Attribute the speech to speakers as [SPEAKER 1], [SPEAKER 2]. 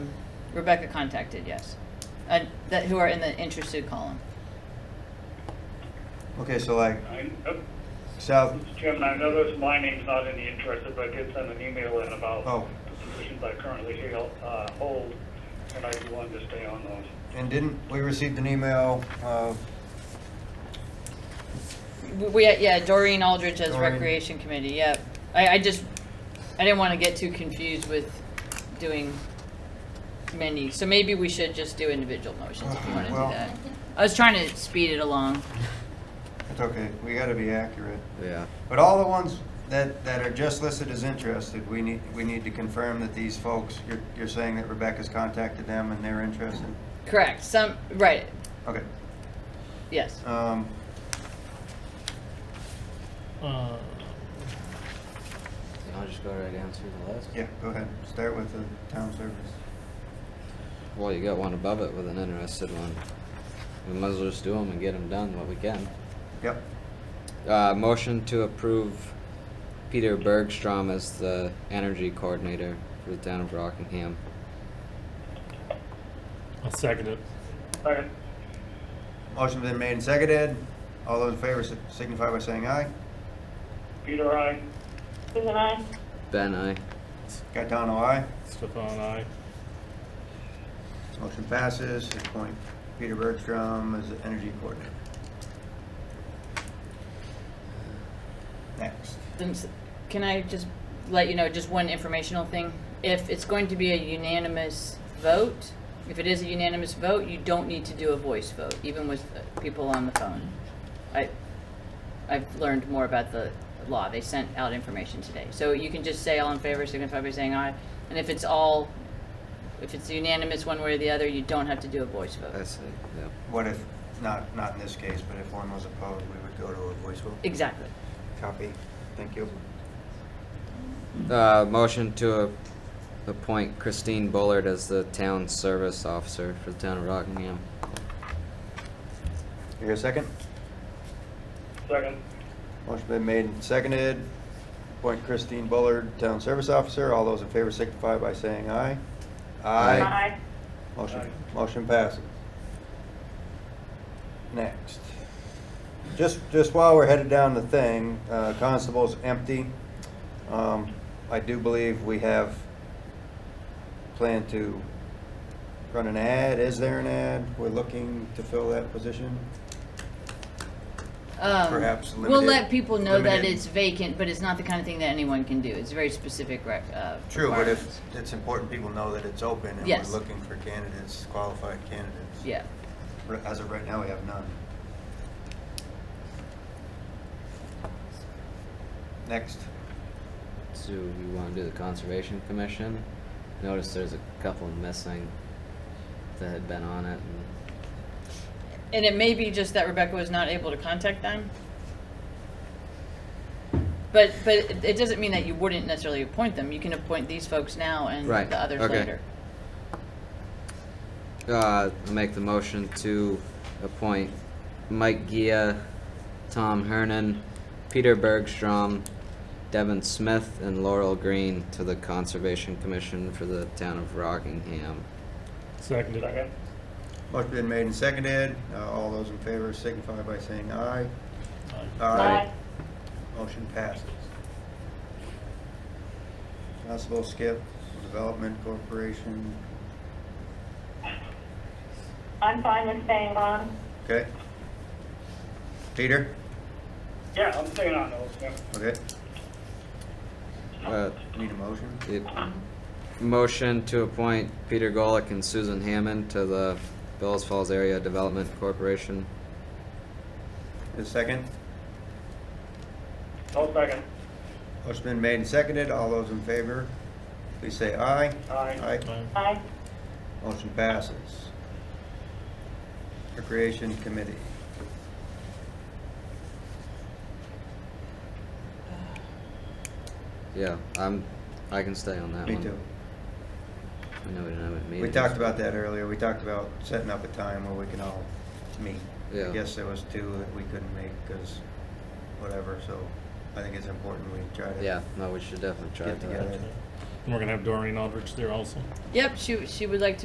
[SPEAKER 1] Rebecca contacted, yes. Uh, that, who are in the interested column.
[SPEAKER 2] Okay, so like
[SPEAKER 3] I, oh,
[SPEAKER 2] South,
[SPEAKER 3] Mr. Chairman, I noticed my name's not in the interested, but I did send an email in about
[SPEAKER 2] Oh.
[SPEAKER 3] the positions I currently hail- uh, hold, and I do want to stay on those.
[SPEAKER 2] and didn't, we received an email, uh,
[SPEAKER 1] We- We, yeah, Doreen Aldrich as
[SPEAKER 2] Doreen.
[SPEAKER 1] Recreation Committee, yep. I, I just, I didn't want to get too confused with doing many, so maybe we should just do individual motions if you want to do
[SPEAKER 2] Well-
[SPEAKER 1] that. I was trying to speed it along.
[SPEAKER 2] it's okay, we gotta be accurate.
[SPEAKER 4] Yeah.
[SPEAKER 2] But all the ones that, that are just listed as interested, we need, we need to confirm that these folks, you're, you're saying that Rebecca's contacted them and they're interested?
[SPEAKER 1] Correct, some, right,
[SPEAKER 2] Okay,
[SPEAKER 1] yes.
[SPEAKER 2] um,
[SPEAKER 5] Uh,
[SPEAKER 4] And I'll just go right down through the list.
[SPEAKER 2] yeah, go ahead, start with the town service.
[SPEAKER 4] Well, you got one above it with an interested one. We might as well just do them and get them done what we can.
[SPEAKER 2] Yep,
[SPEAKER 4] Uh, motion to approve Peter Bergstrom as the energy coordinator for the town of Rockingham.
[SPEAKER 5] I'll second it.
[SPEAKER 3] Second.
[SPEAKER 2] motion been made and seconded, all those in favor si- signify by saying aye.
[SPEAKER 3] Peter, I,
[SPEAKER 6] Susan, I.
[SPEAKER 4] Ben, I.
[SPEAKER 2] Gaetano, aye.
[SPEAKER 5] Stefan, I.
[SPEAKER 2] Motion passes, to appoint Peter Bergstrom as the energy coordinator. Next.
[SPEAKER 1] Them s- Can I just let you know, just one informational thing? If it's going to be a unanimous vote, if it is a unanimous vote, you don't need to do a voice vote, even with uh, people on the phone. I, I've learned more about the law, they sent out information today. So you can just say all in favor, signify by saying aye, and if it's all, if it's unanimous one way or the other, you don't have to do a voice
[SPEAKER 4] I
[SPEAKER 1] vote.
[SPEAKER 4] see, yeah.
[SPEAKER 2] What if, not, not in this case, but if one was opposed, we would go to a voice vote?
[SPEAKER 1] Exactly.
[SPEAKER 2] Copy, thank you.
[SPEAKER 4] Uh, motion to a- appoint Christine Bullard as the town service officer for the town of Rockingham.
[SPEAKER 2] You hear a second?
[SPEAKER 3] second.
[SPEAKER 2] Motion been made and seconded. Appoint Christine Bullard, Town Service Officer. All those in favor signify by saying aye.
[SPEAKER 4] Aye.
[SPEAKER 6] I.
[SPEAKER 2] Motion,
[SPEAKER 3] Aye.
[SPEAKER 2] motion passes. Next. Just, just while we're headed down the thing, uh, Constable's empty. Um, I do believe we have planned to run an ad. Is there an ad? We're looking to fill that position?
[SPEAKER 1] Um,
[SPEAKER 2] Perhaps
[SPEAKER 1] We'll
[SPEAKER 2] limited-
[SPEAKER 1] let people know that
[SPEAKER 2] limited-
[SPEAKER 1] it's vacant, but it's not the kind of thing that anyone can do. It's very specific rec, uh,
[SPEAKER 2] True, but if,
[SPEAKER 1] requirements.
[SPEAKER 2] it's important people know that it's open and
[SPEAKER 1] Yes.
[SPEAKER 2] we're looking for candidates, qualified candidates.
[SPEAKER 1] Yeah,
[SPEAKER 2] R- As of right now, we have none. Next.
[SPEAKER 4] So you wanna do the conservation commission? Notice there's a couple missing that had been on it and
[SPEAKER 1] and it may be just that Rebecca was not able to contact them. But, but it it doesn't mean that you wouldn't necessarily appoint them. You can appoint these folks now and
[SPEAKER 4] Right,
[SPEAKER 1] the others
[SPEAKER 4] okay.
[SPEAKER 1] later.
[SPEAKER 4] Uh, I'll make the motion to appoint Mike Gia, Tom Hernan, Peter Bergstrom, Devin Smith, and Laurel Green to the Conservation Commission for the town of Rockingham.
[SPEAKER 5] Second it.
[SPEAKER 3] Second.
[SPEAKER 2] Motion been made and seconded. Uh, All those in favor signify by saying aye.
[SPEAKER 5] Aye.
[SPEAKER 6] I.
[SPEAKER 2] Motion passes. Constable Skip, Development Corporation.
[SPEAKER 6] I'm fine with staying on.
[SPEAKER 2] Okay. Peter?
[SPEAKER 3] Yeah, I'm staying on those, yeah.
[SPEAKER 2] Okay.
[SPEAKER 4] Uh,
[SPEAKER 2] Need a motion?
[SPEAKER 4] it- motion to appoint Peter Golick and Susan Hammond to the Bellas Falls Area Development Corporation.
[SPEAKER 2] A second?
[SPEAKER 3] I'll second.
[SPEAKER 2] Motion been made and seconded. All those in favor, please say aye.
[SPEAKER 3] Aye.
[SPEAKER 5] Aye.
[SPEAKER 6] I.
[SPEAKER 2] Motion passes. Recreation Committee.
[SPEAKER 4] Yeah, I'm, I can stay on that
[SPEAKER 2] Me
[SPEAKER 4] one.
[SPEAKER 2] too.
[SPEAKER 4] I know we didn't have it
[SPEAKER 2] We talked about that earlier. We talked about setting up a time where we can all meet. I
[SPEAKER 4] Yeah.
[SPEAKER 2] guess there was two that we couldn't make because whatever, so I think it's important we try to.
[SPEAKER 4] Yeah, no, we should definitely try
[SPEAKER 2] Get
[SPEAKER 4] to. uh,
[SPEAKER 2] together.
[SPEAKER 5] And we're gonna have Doreen Aldrich there also.
[SPEAKER 1] Yep, she, she would like to